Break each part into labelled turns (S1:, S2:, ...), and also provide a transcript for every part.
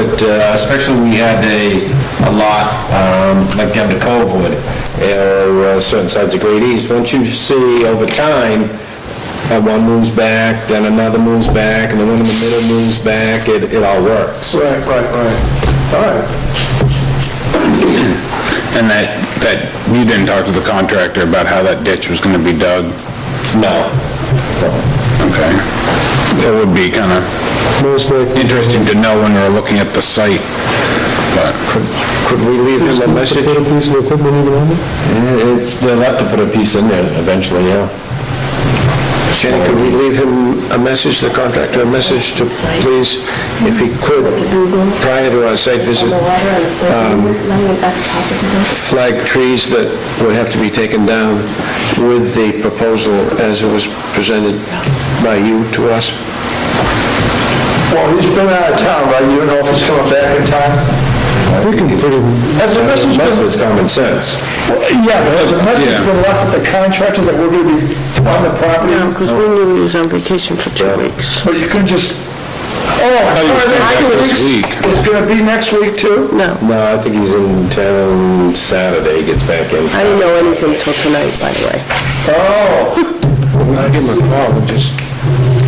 S1: But uh, especially we had a, a lot, um, like down to Covewood, or uh, certain sides of Great East, once you see over time, uh, one moves back, then another moves back, and the one in the middle moves back, it, it all works.
S2: Right, right, right. All right.
S3: And that, that, you didn't talk to the contractor about how that ditch was gonna be dug?
S1: No.
S3: Okay. It would be kinda
S2: Most likely,
S3: interesting to know when we're looking at the site, but...
S1: Could we leave
S2: just
S1: them a
S2: put
S1: message?
S2: a piece of equipment even on it?
S1: Eh, It's, they'll have to put a piece in there eventually, yeah.
S4: Jenny, could we leave him a message, the contractor, a message to please, if he could, prior to our site visit,
S5: The water and the soil, none of that's possible.
S4: flag trees that would have to be taken down with the proposal as it was presented by you to us?
S2: Well, he's been out of town, right? You don't know if he's coming back in time? We can put him... Has the message
S1: Most of it's
S2: been...
S1: common sense.
S2: Well, Yeah, but has the message
S3: Yeah.
S2: been left with the contractor that we're going to be on the property?
S6: No, because we knew he was on vacation for two weeks.
S2: But you could just... Oh,
S3: thought he was
S2: all right,
S3: back
S2: two
S3: this
S2: weeks.
S3: week.
S2: It's going to be next week, too?
S6: No,
S1: No, I think he's in town Saturday, gets back in.
S6: I didn't know anything till tonight, by the way.
S2: Oh,
S4: We could give him a call and just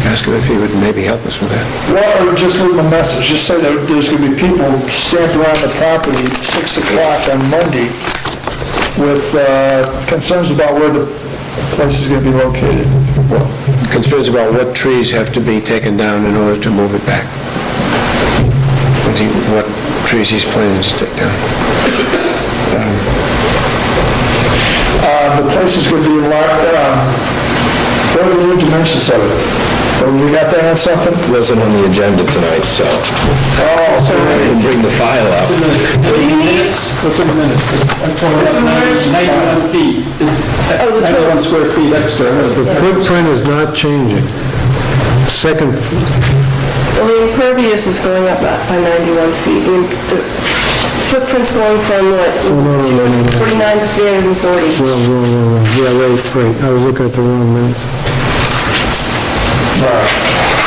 S4: ask him if he would maybe help us with that.
S2: well, or just leave him a message, just say that there's going to be people stamped around the property 6 o'clock on Monday with uh, concerns about where the place is going to be located.
S4: Concerns about what trees have to be taken down in order to move it back. What he- What trees he's planning to take down.
S2: Uh, The place is going to be locked, uh, what are the new dimensions of it? Have we got that on something?
S1: Wasn't on the agenda tonight, so.
S2: Oh,
S1: I
S2: sorry.
S1: can bring the file up.
S7: What's in the minutes? It's ninety-one feet, ninety-one square feet extra.
S2: Footprint is not changing. Second,
S6: Well, the impervious is going up by 91 feet. The im- The footprint's going from what, 249 to 340.
S2: wrong, wrong, wrong, yeah, right, right, I was looking at the wrong minutes.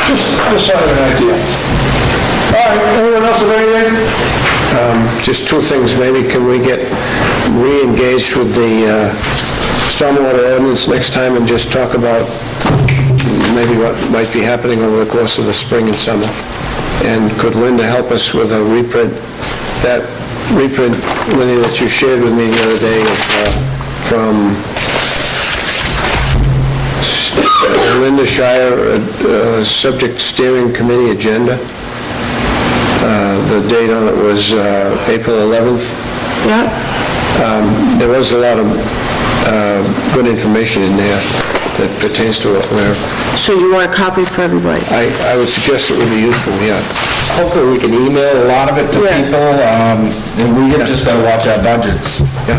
S2: Just, just out of an idea. All right, anyone else have anything?
S4: Just two things, maybe can we get re-engaged with the uh, stormwater ordinance next time and just talk about maybe what might be happening over the course of the spring and summer? And could Linda help us with a reprint, that reprint, Linda, that you shared with me the other day of, uh, from Linda Shire, uh, uh, Subject Steering Committee Agenda? The date on it was uh, April 11th.
S6: Yeah,
S4: There was a lot of uh, good information in there that pertains to it, where
S6: so you want a copy for everybody?
S4: I I would suggest it would be useful, yeah.
S1: Hopefully, we can email a lot of it to
S6: Yeah.
S1: people, um, and we have just gotta watch our budgets.
S4: Yeah.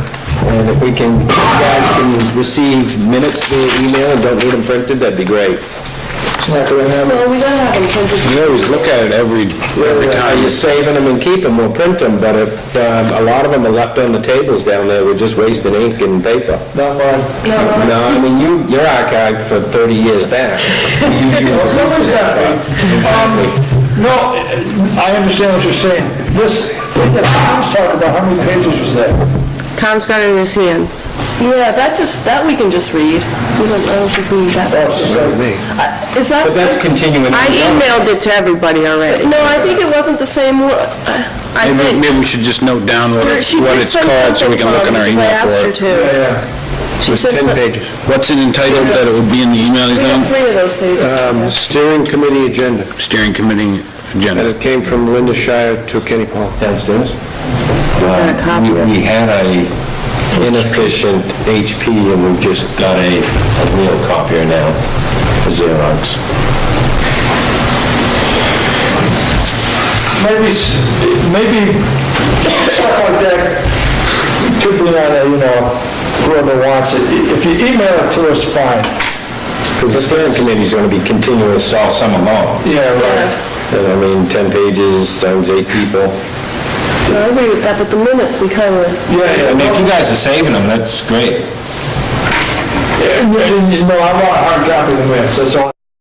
S1: And if we can, if you guys can receive minutes via email and don't need them printed, that'd be great.
S2: It's not going to happen.
S6: Well, we don't have intended,
S1: You always look at it every, every time. You're saving them and keep them, we'll print them, but if, um, a lot of them are left on the tables down there, we're just wasting ink and paper.
S2: Not mine.
S1: No, I mean, you, you're archived for 30 years back. You use you for
S2: Someone's
S1: research,
S2: got
S1: but- Exactly.
S2: um, No, I understand what you're saying. This, the Tom's talk about, how many pages was that?
S6: Tom's got it in his hand. Yeah, that just, that we can just read. We don't, I don't think we need that. Uh,
S2: Oh, it's like-
S4: Me.
S6: Is that...
S1: But that's continuing.
S6: I emailed it to everybody already. No, I think it wasn't the same one. I
S3: Maybe,
S6: think...
S3: maybe we should just note down what it-
S6: She
S3: what
S6: did
S3: it's
S6: send
S3: called, so we
S6: something
S3: can look in
S6: from,
S3: our
S6: because I
S3: email
S6: asked
S3: for
S6: her
S3: it.
S6: to.
S2: Yeah.
S6: She
S4: It's
S6: sent
S4: 10
S6: some-
S4: pages.
S3: What's it entitled that it would be in the email, you
S6: We got
S3: think?
S6: three of those pages.
S2: Uh,
S4: Um, Steering Committee Agenda,
S3: Steering committee
S4: and
S3: agenda.
S4: it came from Linda Shire to Kenny Paul.
S1: Downstairs?
S6: got a copy of it.
S1: We had a inefficient HP, and we've just got a a real copier now, a Xerox.
S2: maybe, s- maybe stuff like that could be on a, Oh, you know, whoever wants it. I- If you email it to us, fine.
S1: Because the steering committee's gonna be continuous all summer long.
S2: Yeah, right.
S1: And I mean, 10 pages times eight people.
S6: No, I agree with that, but the minutes, we kind of,
S2: Yeah, yeah.
S1: I mean, if you guys are saving them, that's great.
S2: No, I want a hard copy of the minutes, that's all.